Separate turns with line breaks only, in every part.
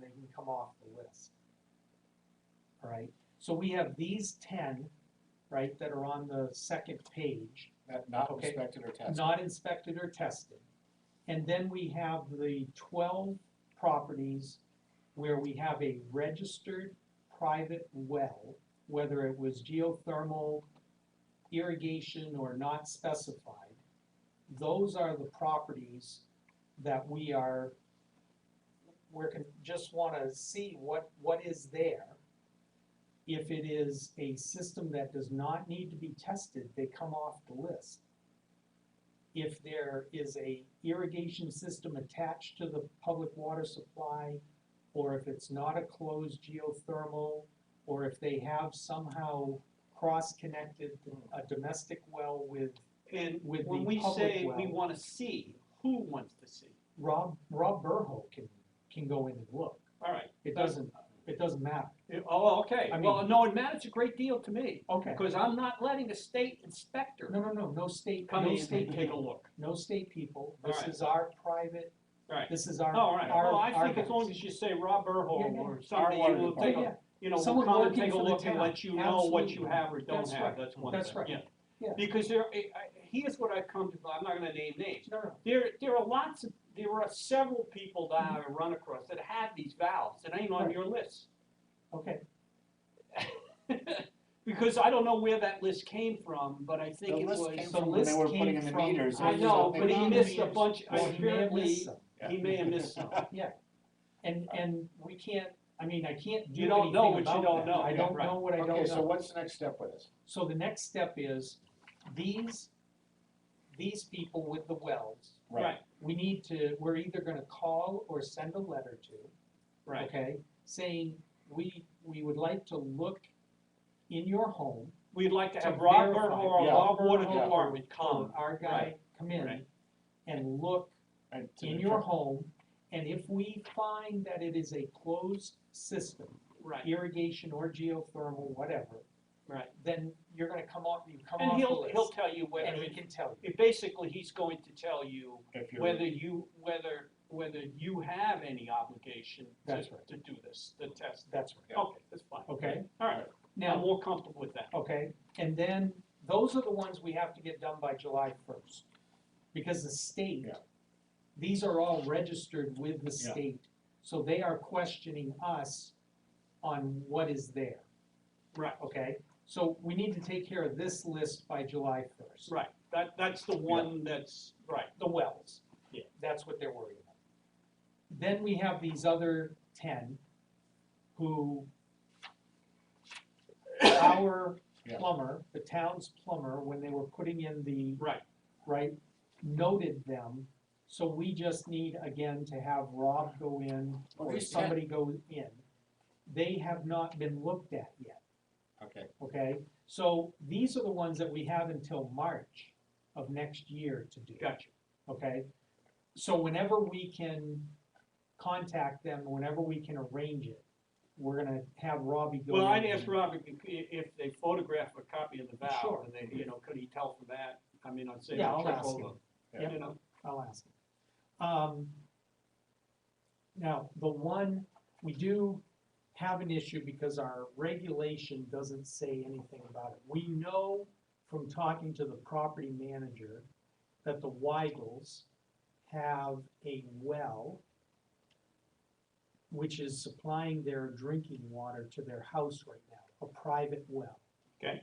they can come off the list. All right, so we have these ten, right, that are on the second page,
Not, not
Okay.
inspected or tested.
not inspected or tested. And then we have the twelve properties where we have a registered private well, whether it was geothermal, irrigation, or not specified. Those are the properties that we are, we're con- just wanna see what, what is there. If it is a system that does not need to be tested, they come off the list if there is a irrigation system attached to the public water supply, or if it's not a closed geothermal, or if they have somehow cross-connected a domestic well with,
And
With
when
the
we
public
say we
well.
wanna see, who wants to see?
Rob, Rob Burho can, can go in and look.
All right.
It doesn't, it doesn't matter.
It- Oh, okay,
I
well,
mean-
no, it matters a great deal to me,
Okay.
because I'm not letting a state inspector
No, no, no, no state,
come
no
in
state
and take a
people,
look.
no state people.
All
This
right.
is our private,
Right.
this is our,
All right,
our,
well, I
our
think as long
guys.
as you say Rob
Yeah,
Burholm
yeah.
or
Our
somebody,
water
will
Yeah,
take
Oh, yeah.
a, you know, will
Someone
come and
working
take a
for the
look and
town.
let you know what you
Absolutely.
have or don't
That's
have,
right.
that's one thing, yeah.
That's right. Yeah.
Because there, I- I- here's what I've come to, I'm not gonna name names,
No, no,
There, there are lots of, there are several people that I've run across that have these valves that ain't on
Right.
your list.
okay,
Because I don't know where that list came from, but I
The
think it
list came
was,
the
from when they
list
were putting
came
in the
from-
meters.
I
There's
know,
nothing
but he
wrong.
missed a bunch,
well, he may have missed
apparently,
some.
Yeah.
he may have missed some.
And, and we can't, I mean, I can't do
You don't know
anything
what you
about that.
don't know.
I
Yeah,
don't
right.
know what I don't know.
Okay, so what's the next step with this?
So the next step is, these, these people with the wells,
Right,
we need to, we're either gonna call or send a letter to,
right,
okay? Saying, we, we would like to look in your home,
we'd like to
To
have Rob
verify,
Bernhardt, or
yeah.
Rob Water
Yeah.
Department come,
our guy,
Right,
come in
right.
and look
And to
in
the
your
tr-
home, and if we find that it is a closed system,
right,
irrigation or geothermal, whatever,
right.
then you're gonna come off, you come
And
off
he'll,
the
he'll
list,
tell you whether,
and he can tell you.
it- basically, he's going to tell you
If you're,
whether you, whether, whether you have any obligation to,
That's right.
to do this, the test.
That's right,
Yeah.
Okay, that's fine.
okay?
All right, now I'm
Now,
more comfortable with that.
okay, and then, those are the ones we have to get done by July first. Because the state,
Yeah.
these are all registered with the
Yeah.
state, so they are questioning us on what is there,
Right,
okay? So we need to take care of this list by July first.
right. That, that's the one that's, right,
the wells.
Yeah.
That's what they're worried about. Then we have these other ten who our
Yeah.
plumber, the town's plumber, when they were putting in the,
right.
right, noted them. So we just need again to have Rob go in
Well,
or
these 10
somebody go in. They have not been looked at yet,
okay,
okay? So these are the ones that we have until March of next year to do
Gotcha.
okay? So whenever we can contact them, whenever we can arrange it, we're gonna have Robbie go.
Well,
in
I'd ask
and-
Rob if, if they photograph a copy of the
Sure.
valve and they, you know, could he tell from that? I mean, I'd say.
Yeah, I'll
check
ask
over,
him.
Yeah.
You know,
I'll ask him. Um, now, the one, we do have an issue because our regulation doesn't say anything about it. We know from talking to the property manager that the Weigels have a well which is supplying their drinking water to their house right now, a private well.
Okay.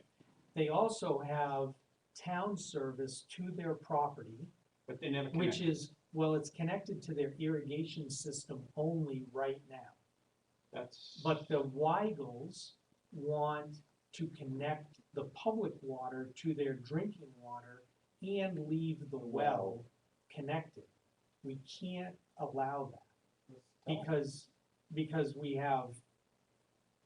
They also have town service to their property.
but they never
Which
connect.
is, well, it's connected to their irrigation system only right now.
That's.
But the Weigels want to connect the public water to their drinking water and leave the well connected. We can't allow that because, because we have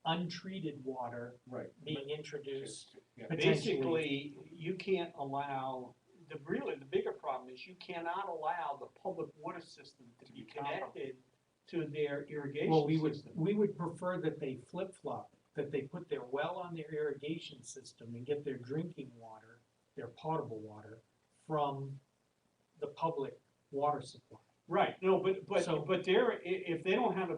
untreated water
right.
being introduced.
Yeah.
potentially.
Basically, you can't allow, the, really, the bigger problem is you cannot allow the public water system to be connected to their
Well, we
irrigation
would,
system.
we would prefer that they flip flop, that they put their well on their irrigation system and get their drinking water, their potable water, from the public water supply.
Right, no, but,
So-
but, but they're, i- if they don't have a